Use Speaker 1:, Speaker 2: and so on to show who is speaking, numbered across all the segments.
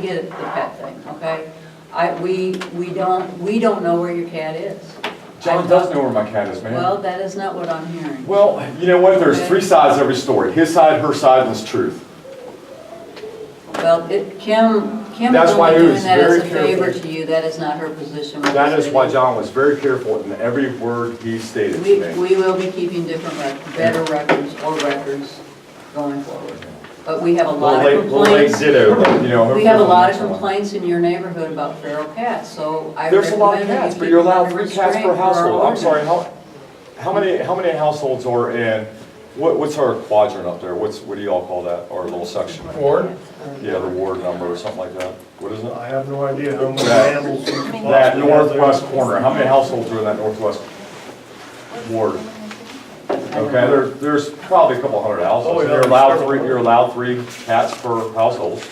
Speaker 1: the, the pet thing, okay? I, we, we don't, we don't know where your cat is.
Speaker 2: John does know where my cat is,
Speaker 1: Well,
Speaker 2: man.
Speaker 1: that is not what I'm hearing.
Speaker 2: Well, you know what, there's three sides to every story, his side, her side, and his truth.
Speaker 1: Well, it, Kim, Kim is
Speaker 2: That's why
Speaker 1: only
Speaker 2: it
Speaker 1: doing
Speaker 2: was
Speaker 1: that as a
Speaker 2: very
Speaker 1: favor
Speaker 2: careful.
Speaker 1: to you, that is not her position. with
Speaker 2: That
Speaker 1: the
Speaker 2: is why
Speaker 1: city.
Speaker 2: John was very careful in every word he stated
Speaker 1: We,
Speaker 2: to me.
Speaker 1: we will be keeping different, rec- better records or records going forward. But we have a
Speaker 2: Little
Speaker 1: lot
Speaker 2: late,
Speaker 1: of
Speaker 2: little late
Speaker 1: complaints.
Speaker 2: ditto, but, you know.
Speaker 1: We have a
Speaker 2: hopefully
Speaker 1: lot of
Speaker 2: next one.
Speaker 1: complaints in your neighborhood about feral cats, so I
Speaker 2: There's a lot of
Speaker 1: recommend that
Speaker 2: cats,
Speaker 1: you
Speaker 2: but
Speaker 1: keep
Speaker 2: you're
Speaker 1: them
Speaker 2: allowed
Speaker 1: under
Speaker 2: three cats
Speaker 1: restraint
Speaker 2: per
Speaker 1: for our
Speaker 2: household. I'm sorry,
Speaker 1: ordinance.
Speaker 2: how, how many, how many households are in, what, what's our quadrant up there? What's, what do y'all call that, our little section?
Speaker 3: Ward?
Speaker 2: Yeah, the ward number or something like that. What is it?
Speaker 3: I have no idea how many
Speaker 2: That-
Speaker 3: animals we could possibly
Speaker 2: That
Speaker 3: have
Speaker 2: northwest
Speaker 3: there.
Speaker 2: corner, how many households are in that northwest ward? Okay, there, there's probably a couple hundred
Speaker 3: Oh,
Speaker 2: households.
Speaker 3: yeah,
Speaker 2: You're allowed
Speaker 3: several.
Speaker 2: three, you're allowed three cats per household.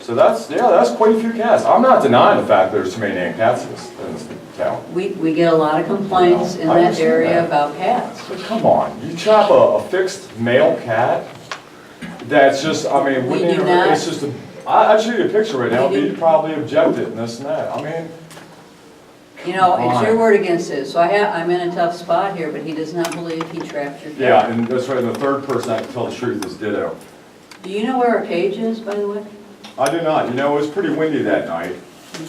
Speaker 2: So that's, yeah, that's quite a few cats. I'm not denying the fact there's too many damn cats in this, in this town.
Speaker 1: We, we get a lot of complaints in
Speaker 2: I
Speaker 1: that
Speaker 2: understand
Speaker 1: area
Speaker 2: that.
Speaker 1: about cats.
Speaker 2: But come on, you chop a, a fixed male cat, that's just, I mean,
Speaker 1: We
Speaker 2: wouldn't
Speaker 1: do
Speaker 2: even-
Speaker 1: not-
Speaker 2: it's just, a- I, I'd show you a picture right now,
Speaker 1: We
Speaker 2: but
Speaker 1: do-
Speaker 2: you'd probably object it and this and that, I mean,
Speaker 1: You know, it's your
Speaker 2: Come on.
Speaker 1: word against his, so I have, I'm in a tough spot here, but he does not believe he trapped your cat.
Speaker 2: yeah, and that's right, and the third person I can tell the truth is ditto.
Speaker 1: Do you know where our cage is, by the way?
Speaker 2: I do not, you know, it was pretty windy that night,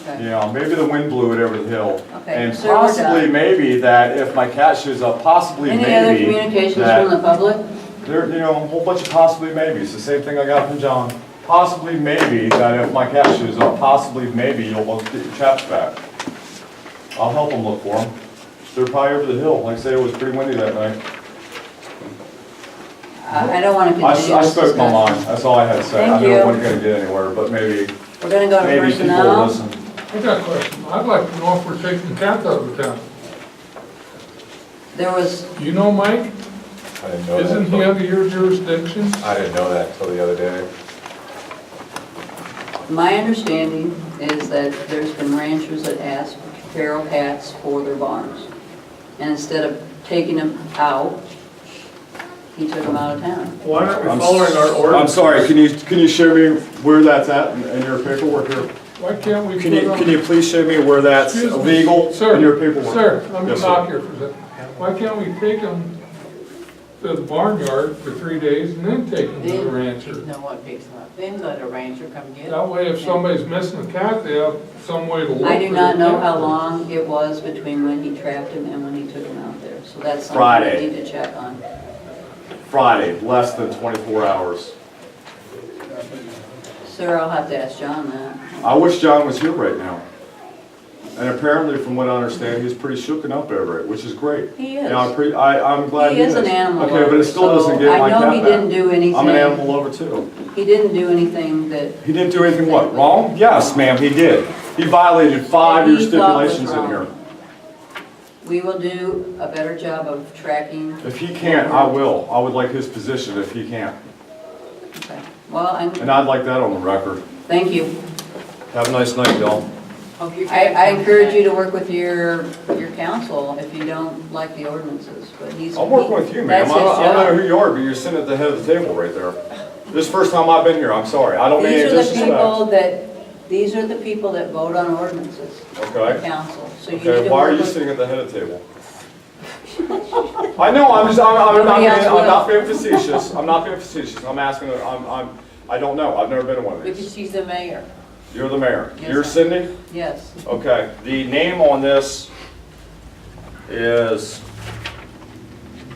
Speaker 1: Okay.
Speaker 2: you know, maybe the wind blew it over the hill.
Speaker 1: Okay,
Speaker 2: And
Speaker 1: so we're
Speaker 2: possibly,
Speaker 1: done.
Speaker 2: maybe that if my cat shows up, possibly, maybe.
Speaker 1: Any other communications
Speaker 2: that-
Speaker 1: from the public?
Speaker 2: There, you know, a whole bunch of possibly maybes, the same thing I got from John. Possibly maybe that if my cat shows up, possibly maybe you'll both get your chaps back. I'll help them look for them. They're probably over the hill, like I say, it was pretty windy that night.
Speaker 1: I I don't want to
Speaker 2: I s-
Speaker 1: continue
Speaker 2: I
Speaker 1: this
Speaker 2: spoke my
Speaker 1: discussion.
Speaker 2: mind, that's all I had to say. I
Speaker 1: Thank
Speaker 2: know
Speaker 1: you.
Speaker 2: it wasn't gonna get anywhere, but maybe,
Speaker 1: We're going to go to
Speaker 2: maybe people
Speaker 1: personnel.
Speaker 2: will listen.
Speaker 4: I got a question. I'd like to know if we're taking cats out of town.
Speaker 1: There was,
Speaker 4: You know, Mike,
Speaker 5: I didn't know
Speaker 4: isn't he
Speaker 5: that.
Speaker 4: under your jurisdiction?
Speaker 5: till- I didn't know that until the other day.
Speaker 1: my understanding is that there's been ranchers that ask for feral cats for their barns. And instead of taking them out, he took them out of town.
Speaker 3: Why aren't
Speaker 2: I'm
Speaker 3: we
Speaker 2: s-
Speaker 3: following our ordinance?
Speaker 2: I'm sorry, can you, can you show me where that's at in- in your paperwork here?
Speaker 4: Why can't we put
Speaker 2: Can you,
Speaker 4: on-
Speaker 2: can you please show me where that's
Speaker 4: Excuse me.
Speaker 2: legal
Speaker 4: Sir,
Speaker 2: in your paperwork?
Speaker 4: Sir, let me
Speaker 2: Yes, sir.
Speaker 4: talk here for a second. Why can't we take them to the barnyard for three days and then take them to the rancher?
Speaker 6: No one picks them up. Then let a ranger come get them.
Speaker 4: That way, if somebody's missing a cat, they have some way to look.
Speaker 1: I do
Speaker 4: for
Speaker 1: not
Speaker 4: the
Speaker 1: know
Speaker 4: cat.
Speaker 1: how long it was between when he trapped him and when he took him out there. So that's something
Speaker 2: Friday.
Speaker 1: we need to check on.
Speaker 2: Friday, less than 24 hours.
Speaker 1: Sir, I'll have to ask John that.
Speaker 2: I wish John was here right now. And apparently, from what I understand, he's pretty shooken up over it, which is great.
Speaker 1: He
Speaker 2: And I
Speaker 1: is.
Speaker 2: pre- I, I'm glad
Speaker 1: He
Speaker 2: he
Speaker 1: is
Speaker 2: is.
Speaker 1: an animal
Speaker 2: Okay, but
Speaker 1: lover,
Speaker 2: it still doesn't
Speaker 1: so
Speaker 2: get my
Speaker 1: I
Speaker 2: cat
Speaker 1: know he
Speaker 2: back.
Speaker 1: didn't do anything.
Speaker 2: I'm an animal lover too.
Speaker 1: He didn't do anything that
Speaker 2: He didn't do anything what, wrong? Yes, ma'am, he did. He violated five of your
Speaker 1: He thought was
Speaker 2: stipulations in here.
Speaker 1: wrong. we will do a better job of tracking.
Speaker 2: If he can't, I will. I would like his position if he can't.
Speaker 1: Okay. Well,
Speaker 2: And
Speaker 1: I,
Speaker 2: I'd like that on the record.
Speaker 1: thank you.
Speaker 2: Have a nice night, y'all.
Speaker 6: Hope your
Speaker 1: I,
Speaker 6: cat
Speaker 1: I
Speaker 6: comes
Speaker 1: encourage you
Speaker 6: back.
Speaker 1: to work with your, your council if you don't like the ordinances, but he's.
Speaker 2: I'm working with you, ma'am. I
Speaker 1: That's his
Speaker 2: don't I don't know
Speaker 1: job.
Speaker 2: who you are, but you're sitting at the head of the table right there. This is the first time I've been here, I'm sorry. I don't mean
Speaker 1: These
Speaker 2: any
Speaker 1: are the people
Speaker 2: disrespect.
Speaker 1: that, these are the people that vote on ordinances, the
Speaker 2: Okay?
Speaker 1: council, so you need
Speaker 2: Okay,
Speaker 1: to
Speaker 2: why are
Speaker 1: work
Speaker 2: you
Speaker 1: with.
Speaker 2: sitting at the head of the table? I know, I'm just, I'm, I'm not,
Speaker 1: Nobody
Speaker 2: being-
Speaker 1: else will.
Speaker 2: I'm not being facetious. I'm not being facetious. I'm asking, I'm, I'm, I don't know. I've never been to one of
Speaker 6: Because
Speaker 2: these.
Speaker 6: she's the mayor.
Speaker 2: You're the mayor.
Speaker 1: Yes,
Speaker 2: You're
Speaker 1: sir.
Speaker 2: Cindy?
Speaker 1: Yes,
Speaker 2: Okay, the name on this is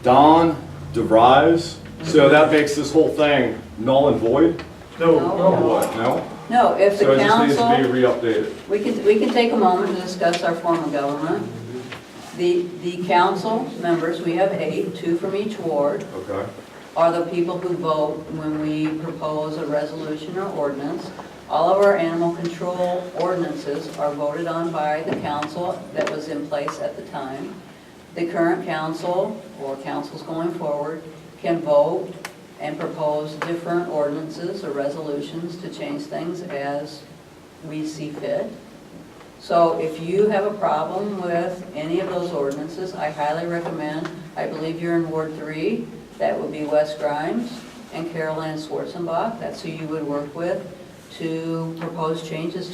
Speaker 2: Don DeVries. So
Speaker 1: Mm-hmm.
Speaker 2: that makes this whole thing null and void?
Speaker 3: No,
Speaker 4: Oh,
Speaker 1: no,
Speaker 4: boy.
Speaker 2: No?
Speaker 1: no, if the
Speaker 2: So it just needs to be
Speaker 1: council,
Speaker 2: re-updated.
Speaker 1: we can, we can take a moment to discuss our form of government. The, the council members, we have eight, two from each ward.
Speaker 2: Okay.
Speaker 1: are the people who vote when we propose a resolution or ordinance. All of our animal control ordinances are voted on by the council that was in place at the time. The current council, or councils going forward, can vote and propose different ordinances or resolutions to change things as we see fit. So if you have a problem with any of those ordinances, I highly recommend, I believe you're in Ward Three, that would be Wes Grimes and Carol Ann Schwarzenbach, that's who you would work with. to propose changes